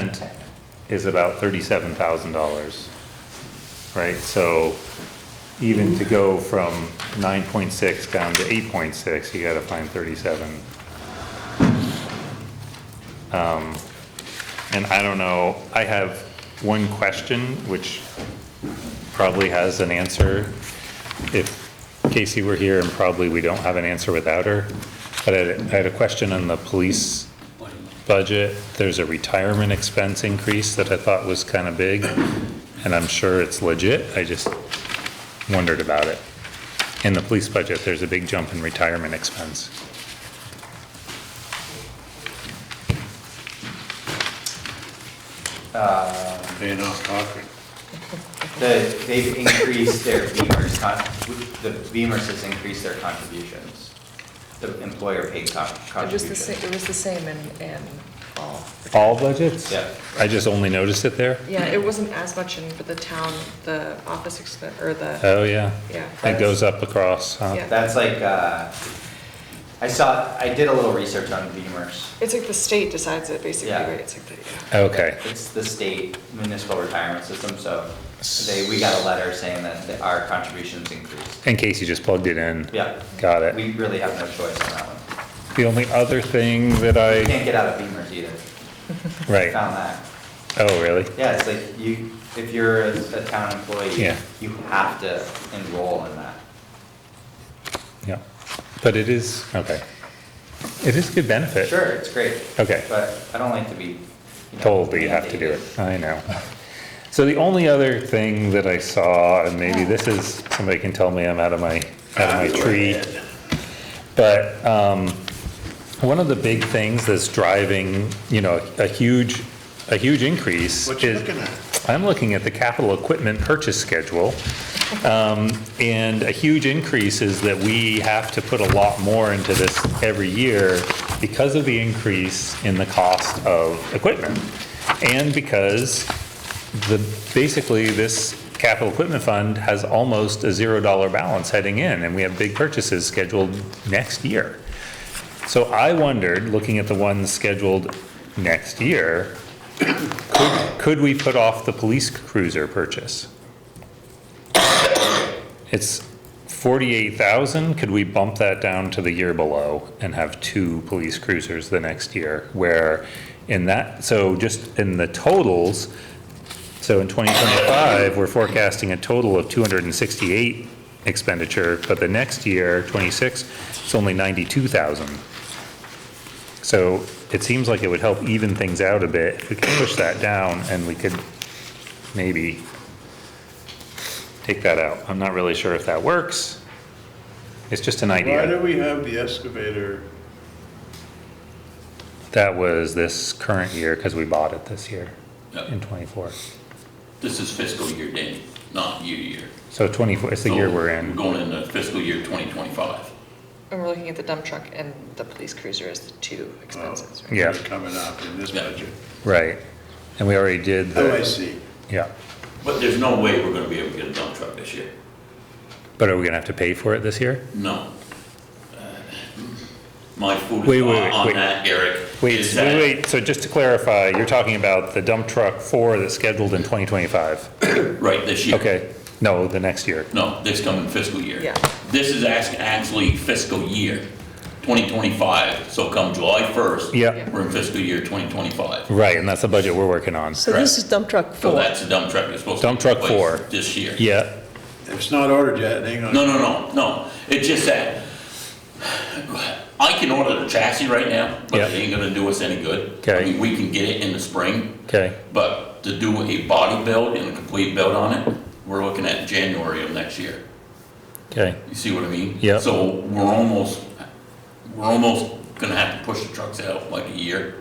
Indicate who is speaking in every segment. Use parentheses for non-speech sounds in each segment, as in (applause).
Speaker 1: percent is about thirty-seven thousand dollars, right? So even to go from nine point six down to eight point six, you gotta find thirty-seven. Um, And I don't know, I have one question, which probably has an answer if Casey were here, and probably we don't have an answer without her. But I had, I had a question on the police budget, there's a retirement expense increase that I thought was kind of big, and I'm sure it's legit, I just wondered about it. In the police budget, there's a big jump in retirement expense.
Speaker 2: Paying off Cochran.
Speaker 3: The, they've increased their Beamer's con, the Beamer's has increased their contributions, the employer paid con,
Speaker 4: It was the same,
Speaker 3: contributions.
Speaker 4: it was the same in, in all.
Speaker 1: All budgets?
Speaker 3: Yeah.
Speaker 1: I just only noticed it there?
Speaker 4: Yeah, it wasn't as much in, but the town, the office expense, or the,
Speaker 1: Oh, yeah.
Speaker 4: Yeah.
Speaker 1: It goes up across, huh?
Speaker 4: Yeah.
Speaker 3: That's like, uh, I saw, I did a little research on Beamer's.
Speaker 4: it's like the state decides it basically,
Speaker 3: Yeah.
Speaker 4: right? It's like the, yeah.
Speaker 1: Okay,
Speaker 3: It's the state municipal retirement system, so they, we got a letter saying that the- our contributions increased.
Speaker 1: in case you just plugged it in.
Speaker 3: Yeah.
Speaker 1: Got it.
Speaker 3: We really have no choice on that one.
Speaker 1: The only other thing that
Speaker 3: You
Speaker 1: I,
Speaker 3: can't get out of Beamer's either.
Speaker 1: right,
Speaker 3: Found that.
Speaker 1: oh, really?
Speaker 3: Yeah, it's like you, if you're a a town employee,
Speaker 1: Yeah.
Speaker 3: you have to enroll in that.
Speaker 1: Yeah, but it is, okay. It is good benefit.
Speaker 3: Sure, it's great.
Speaker 1: Okay.
Speaker 3: But I don't like to be. you know,
Speaker 1: told that you have to do
Speaker 3: mandated.
Speaker 1: it. I know. So the only other thing that I saw, and maybe this is, somebody can tell me I'm out of my, out of my tree. But, um, one of the big things that's driving, you know, a huge, a huge increase is.
Speaker 2: What you looking at?
Speaker 1: I'm looking at the capital equipment purchase schedule. Um, And a huge increase is that we have to put a lot more into this every year because of the increase in the cost of equipment. And because the, basically, this capital equipment fund has almost a $0 balance heading in, and we have big purchases scheduled next year. So I wondered, looking at the ones scheduled next year, could, could we put off the police cruiser purchase? It's forty-eight thousand, could we bump that down to the year below and have two police cruisers the next year? Where in that, so just in the totals, so in twenty twenty-five, we're forecasting a total of two hundred and sixty-eight expenditure, but the next year, twenty-six, it's only ninety-two thousand. So it seems like it would help even things out a bit if we could push that down and we could maybe take that out. I'm not really sure if that works. It's just an
Speaker 2: Why do
Speaker 1: idea.
Speaker 2: we have the excavator?
Speaker 1: That was this current year because we bought it this year
Speaker 5: Yep.
Speaker 1: in '24.
Speaker 5: This is fiscal year, Danny, not year to year.
Speaker 1: So '24, it's the year
Speaker 5: So
Speaker 1: we're in.
Speaker 5: We're going into fiscal year 2025.
Speaker 4: And we're looking at the dump truck and the police cruiser as the two expenses, right?
Speaker 1: Yeah.
Speaker 2: They're Coming up in this
Speaker 5: Yeah.
Speaker 2: budget.
Speaker 1: Right. And we already did
Speaker 2: Oh, I
Speaker 1: the,
Speaker 2: see.
Speaker 1: yeah.
Speaker 5: But there's no way we're gonna be able to get a dump truck this year.
Speaker 1: But are we going to have to pay for it this year?
Speaker 5: No. Uh, My food
Speaker 1: Wait,
Speaker 5: is
Speaker 1: wait,
Speaker 5: on on
Speaker 1: wait.
Speaker 5: that, Eric.
Speaker 1: Wait,
Speaker 5: is
Speaker 1: wait,
Speaker 5: that-
Speaker 1: wait, so just to clarify, you're talking about the dump truck four that's scheduled in (coughs) 2025?
Speaker 5: Right, this year.
Speaker 1: Okay, no, the next year.
Speaker 5: No, this coming fiscal year.
Speaker 4: Yeah.
Speaker 5: This is act- actually fiscal year 2025, so come July 1st.
Speaker 1: Yeah.
Speaker 5: We're in fiscal year 2025.
Speaker 1: Right, and that's the budget we're working on.
Speaker 6: So this is dump truck
Speaker 5: So
Speaker 6: four.
Speaker 5: that's the dump truck that's supposed to.
Speaker 1: Dump
Speaker 5: take
Speaker 1: truck
Speaker 5: place
Speaker 1: four.
Speaker 5: This year.
Speaker 1: Yeah,
Speaker 2: If it's not ordered yet, it ain't gonna.
Speaker 5: No, no, no, no. It's just that I can order the chassis right now, but it
Speaker 1: Yeah.
Speaker 5: ain't gonna do us any good.
Speaker 1: Okay.
Speaker 5: I mean, we can get it in the spring,
Speaker 1: okay,
Speaker 5: but to do a body build and a complete build on it, we're looking at January of next year.
Speaker 1: okay,
Speaker 5: You see what I mean?
Speaker 1: Yeah.
Speaker 5: So we're almost, we're almost gonna have to push the trucks out like a year,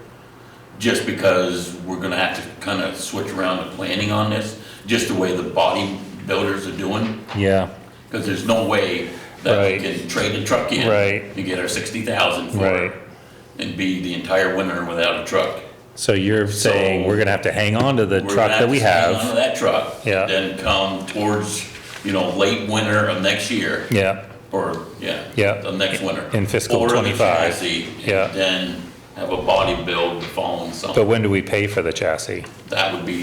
Speaker 5: just because we're gonna have to kind of switch around the planning on this, just the way the body builders are doing.
Speaker 1: yeah,
Speaker 5: Because there's no way that we
Speaker 1: Right.
Speaker 5: can trade the truck in.
Speaker 1: Right.
Speaker 5: And get our sixty thousand for
Speaker 1: Right.
Speaker 5: it. And be the entire winter without a truck.
Speaker 1: so you're saying
Speaker 5: So-
Speaker 1: we're gonna have to hang on to the
Speaker 5: We're gonna
Speaker 1: truck that we
Speaker 5: to hang onto
Speaker 1: have?
Speaker 5: that truck.
Speaker 1: Yeah.
Speaker 5: Then come towards, you know, late winter of next year,
Speaker 1: Yeah,
Speaker 5: or, yeah.
Speaker 1: Yeah.
Speaker 5: The next winter.
Speaker 1: In fiscal
Speaker 5: Order the
Speaker 1: 25.
Speaker 5: chassis, and
Speaker 1: Yeah.
Speaker 5: Then
Speaker 1: have a body build the following
Speaker 5: But
Speaker 1: summer.
Speaker 5: when do we pay for the chassis?
Speaker 1: That would be